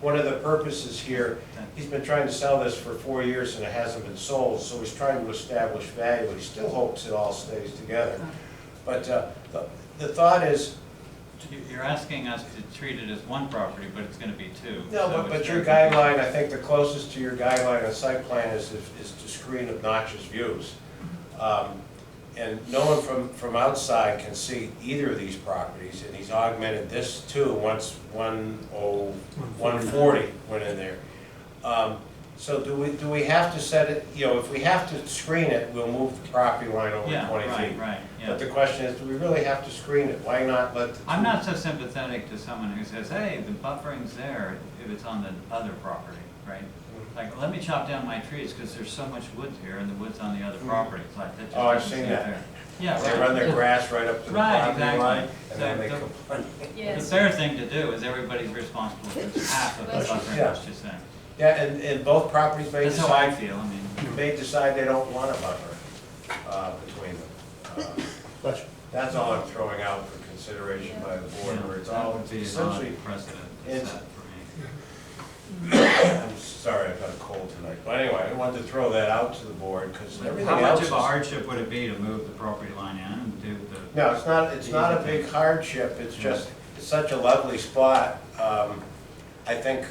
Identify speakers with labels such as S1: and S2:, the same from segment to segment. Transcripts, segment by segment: S1: one of the purposes here, he's been trying to sell this for four years and it hasn't been sold, so he's trying to establish value. He still hopes it all stays together. But uh, the- the thought is,
S2: You- You're asking us to treat it as one property, but it's gonna be two.
S1: no,
S2: so
S1: but-
S2: it's
S1: but your
S2: very confusing.
S1: guideline, I think the closest to your guideline on site plan is, is to screen obnoxious views. Um, And no one from, from outside can see either of these properties, and he's augmented this too, once one oh, one forty went in there. Um, So do we, do we have to set it, you know, if we have to screen it, we'll move the property line over
S2: Yeah,
S1: twenty
S2: right,
S1: feet.
S2: right,
S1: But
S2: yeah.
S1: the question is, do we really have to screen it? Why not let the?
S2: I'm not so sympathetic to someone who says, hey, the buffering's there if it's on the other property, right?
S1: Mm-hmm.
S2: Like, let me chop down my trees, because there's so much woods here, and the wood's on the other property, it's like, that just
S1: Mm-hmm. Oh, I've
S2: doesn't
S1: seen
S2: seem
S1: that.
S2: fair. Yeah,
S1: They
S2: right.
S1: run their grass right up to the
S2: Right,
S1: property
S2: exactly.
S1: line, and then
S2: So
S1: they
S2: the-
S1: complain.
S2: The
S3: Yes.
S2: fair thing to do is everybody's responsible for half of the
S3: That's-
S2: buffering,
S1: yeah.
S2: that's just saying.
S1: Yeah, and, and both properties may
S2: That's how I
S1: decide,
S2: feel, I mean,
S1: may decide they don't want a buffer, uh, between them. Uh, That's all I'm throwing out for consideration by the
S2: you
S1: board,
S2: know,
S1: where it's
S2: that
S1: all
S2: would be an
S1: essentially,
S2: odd precedent to
S1: it's-
S2: set for me.
S1: I'm sorry, I've got a cold tonight, but anyway, I wanted to throw that out to the board, because everything
S2: How
S1: else
S2: much
S1: is.
S2: of a hardship would it be to move the property line in and do the,
S1: No, it's not, it's not a big hardship, it's just, it's such a lovely spot. Um, I think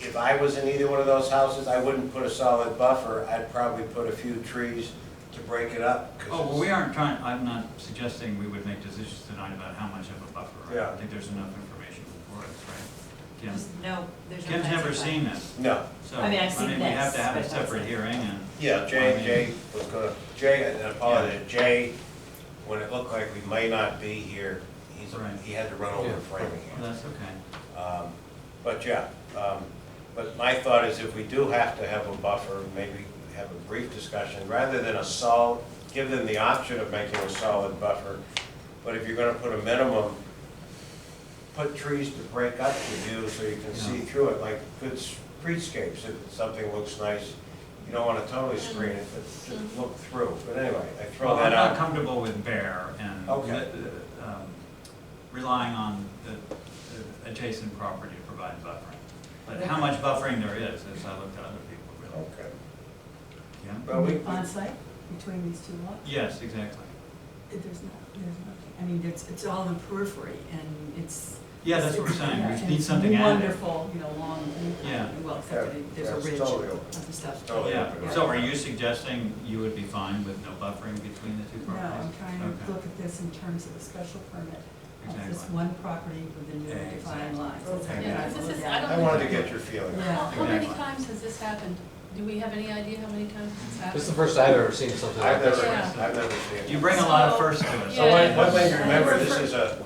S1: if I was in either one of those houses, I wouldn't put a solid buffer, I'd probably put a few trees to break it up. 'cause
S2: oh, well,
S1: it's-
S2: we aren't trying, I'm not suggesting we would make decisions tonight about how much of a buffer. right?
S1: Yeah.
S2: I think there's enough information for us, right? Kim,
S3: There's no, there's no.
S2: Kim's
S3: plans
S2: never
S3: in
S2: seen
S3: mind.
S2: this,
S1: No,
S2: so.
S3: I mean, I've seen
S2: We have
S3: this,
S2: to have a
S3: but that's
S2: separate
S3: it.
S2: hearing and.
S1: yeah,
S2: I
S1: Jay,
S2: mean,
S1: Jay was gonna, Jay, I apologize, Jay, when it looked like we may not be here, he's,
S2: Right.
S1: he had to run over to Framingham.
S2: well, That's okay.
S1: Um, But yeah, um, but my thought is if we do have to have a buffer, maybe have a brief discussion, rather than a solid, give them the option of making a solid buffer. But if you're gonna put a minimum, put trees to break up the view so you can see
S2: Yeah.
S1: through it, like good streetscapes, if something looks nice. You don't wanna totally screen it, but just look through. But anyway, I throw
S2: Well, I'm
S1: that
S2: not
S1: out.
S2: comfortable with bare and
S1: Okay.
S2: uh, um, relying on the the adjacent property to provide buffering. But how much buffering there is, as I looked at other people, really.
S1: Okay.
S2: Yeah?
S1: Well, we,
S4: On site between these two lots?
S2: Yes, exactly.
S4: There's not, there's nothing, I mean, it's, it's all in the periphery and it's.
S2: Yeah, that's what we're
S4: it's- yeah,
S2: saying,
S4: and
S2: we need
S4: it's
S2: something added.
S4: Wonderful, you know, long,
S2: Yeah.
S4: well, except that it- there's
S1: Yeah,
S4: a
S1: it's
S4: ridge
S1: totally open.
S4: of the stuff.
S1: Totally.
S2: Yeah, so are you suggesting you would be fine with no buffering between the two
S4: No,
S2: properties?
S4: I'm trying
S2: Okay.
S4: to look at this in terms of a special permit of this
S2: Exactly.
S4: one property within your defined lines. That's
S1: Okay.
S4: what
S1: Yeah,
S4: I
S3: 'cause
S4: wrote
S3: this is- I
S4: down.
S3: don't
S1: I wanted to get your feeling.
S4: Yeah.
S3: How how many
S2: Exactly.
S3: times has this happened? Do we have any idea how many times it's
S5: This is the
S3: happened?
S5: first I've ever seen something like
S1: I've
S5: this.
S1: never,
S3: Yeah.
S1: I've never seen it.
S2: You bring a lot of firsts to us.
S1: So one,
S3: Yeah.
S1: one thing to remember, this is a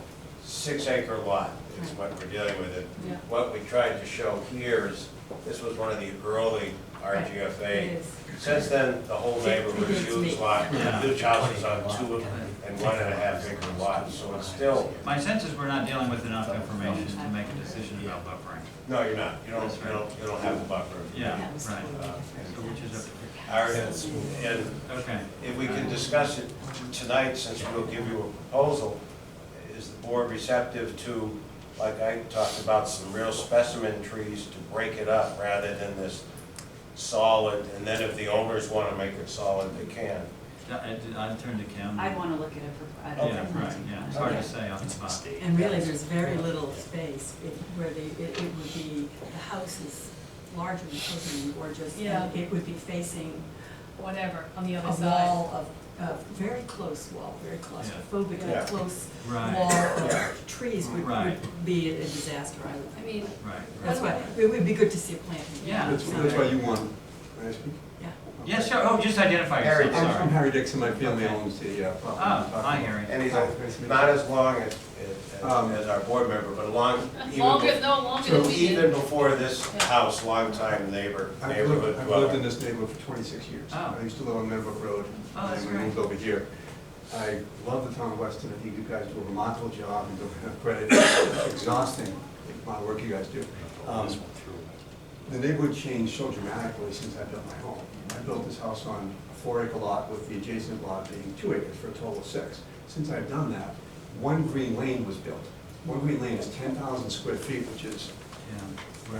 S1: six acre lot, is what we're dealing with. it.
S3: Yeah.
S1: What we tried to show here is, this was one of the early
S4: It
S1: RGFA.
S4: is.
S1: Since then, the whole neighborhood is huge lot,
S2: Yeah.
S1: huge houses on two and one and a half acre lots, so it's still,
S2: My sense is we're not dealing with enough information to make a decision about buffering.
S1: no, you're not, you don't,
S2: That's
S1: you
S2: right.
S1: don't, you don't have a buffer.
S2: Yeah,
S4: That was
S2: right.
S4: totally
S1: Uh,
S4: different.
S2: So which is
S1: Our, and
S2: a, okay.
S1: If we can discuss it tonight, since we'll give you a proposal, is the board receptive to, like I talked about, some real specimen trees to break it up rather than this solid, and then if the owners want to make it solid, they can.
S2: I- I- I'd turn to Kim.
S6: I'd want to look at it for, I'd.
S2: Yeah, right, yeah, it's hard to
S4: Okay.
S2: say off the spot.
S4: And really, there's very little space it- where the, it it would be, the house is larger than totally gorgeous.
S3: Yeah.
S4: and It would be facing
S3: Whatever, on the other
S4: a
S3: side.
S4: wall of, a very close wall, very claustrophobic,
S1: Yeah.
S4: a close
S2: Right.
S4: wall
S1: Yeah.
S4: of trees would,
S2: Right.
S4: would be a disaster, I would
S3: I
S4: think.
S3: mean,
S2: Right, right.
S4: That's why, it would be good to see a plan.
S2: Yeah.
S7: That's, that's why you want, may I speak?
S4: Yeah.
S2: Yeah, sure, oh, just identify
S1: Harry
S2: yourself,
S7: I'm I'm
S2: sorry.
S7: Harry Dixon, my family owns the uh, property. I'm
S2: Oh,
S7: talking
S2: hi,
S7: about.
S2: Harry.
S1: And he's a- not as long as, as-
S7: Um,
S1: as our board member, but long,
S3: longer,
S1: even,
S3: no, longer than
S7: So
S3: we
S1: even
S3: did.
S1: before this house, longtime neighbor,
S7: I've
S1: neighborhood
S7: lived, I've lived in
S1: dweller.
S7: this neighborhood for twenty-six years.
S2: Oh.
S7: I used to live on Meadowbrook Road.
S2: Oh, that's
S7: And then
S2: great.
S7: we moved over here. I love the town of Weston, I think you guys do a remarkable job and don't have credit. It's Exhausting, the amount of work you guys do. Um, The neighborhood changed so dramatically since I built my home. I built this house on a four acre lot with the adjacent lot being two acres for a total of six. Since I've done that, one green lane was built. One green lane is ten thousand square feet, which is
S2: Yeah.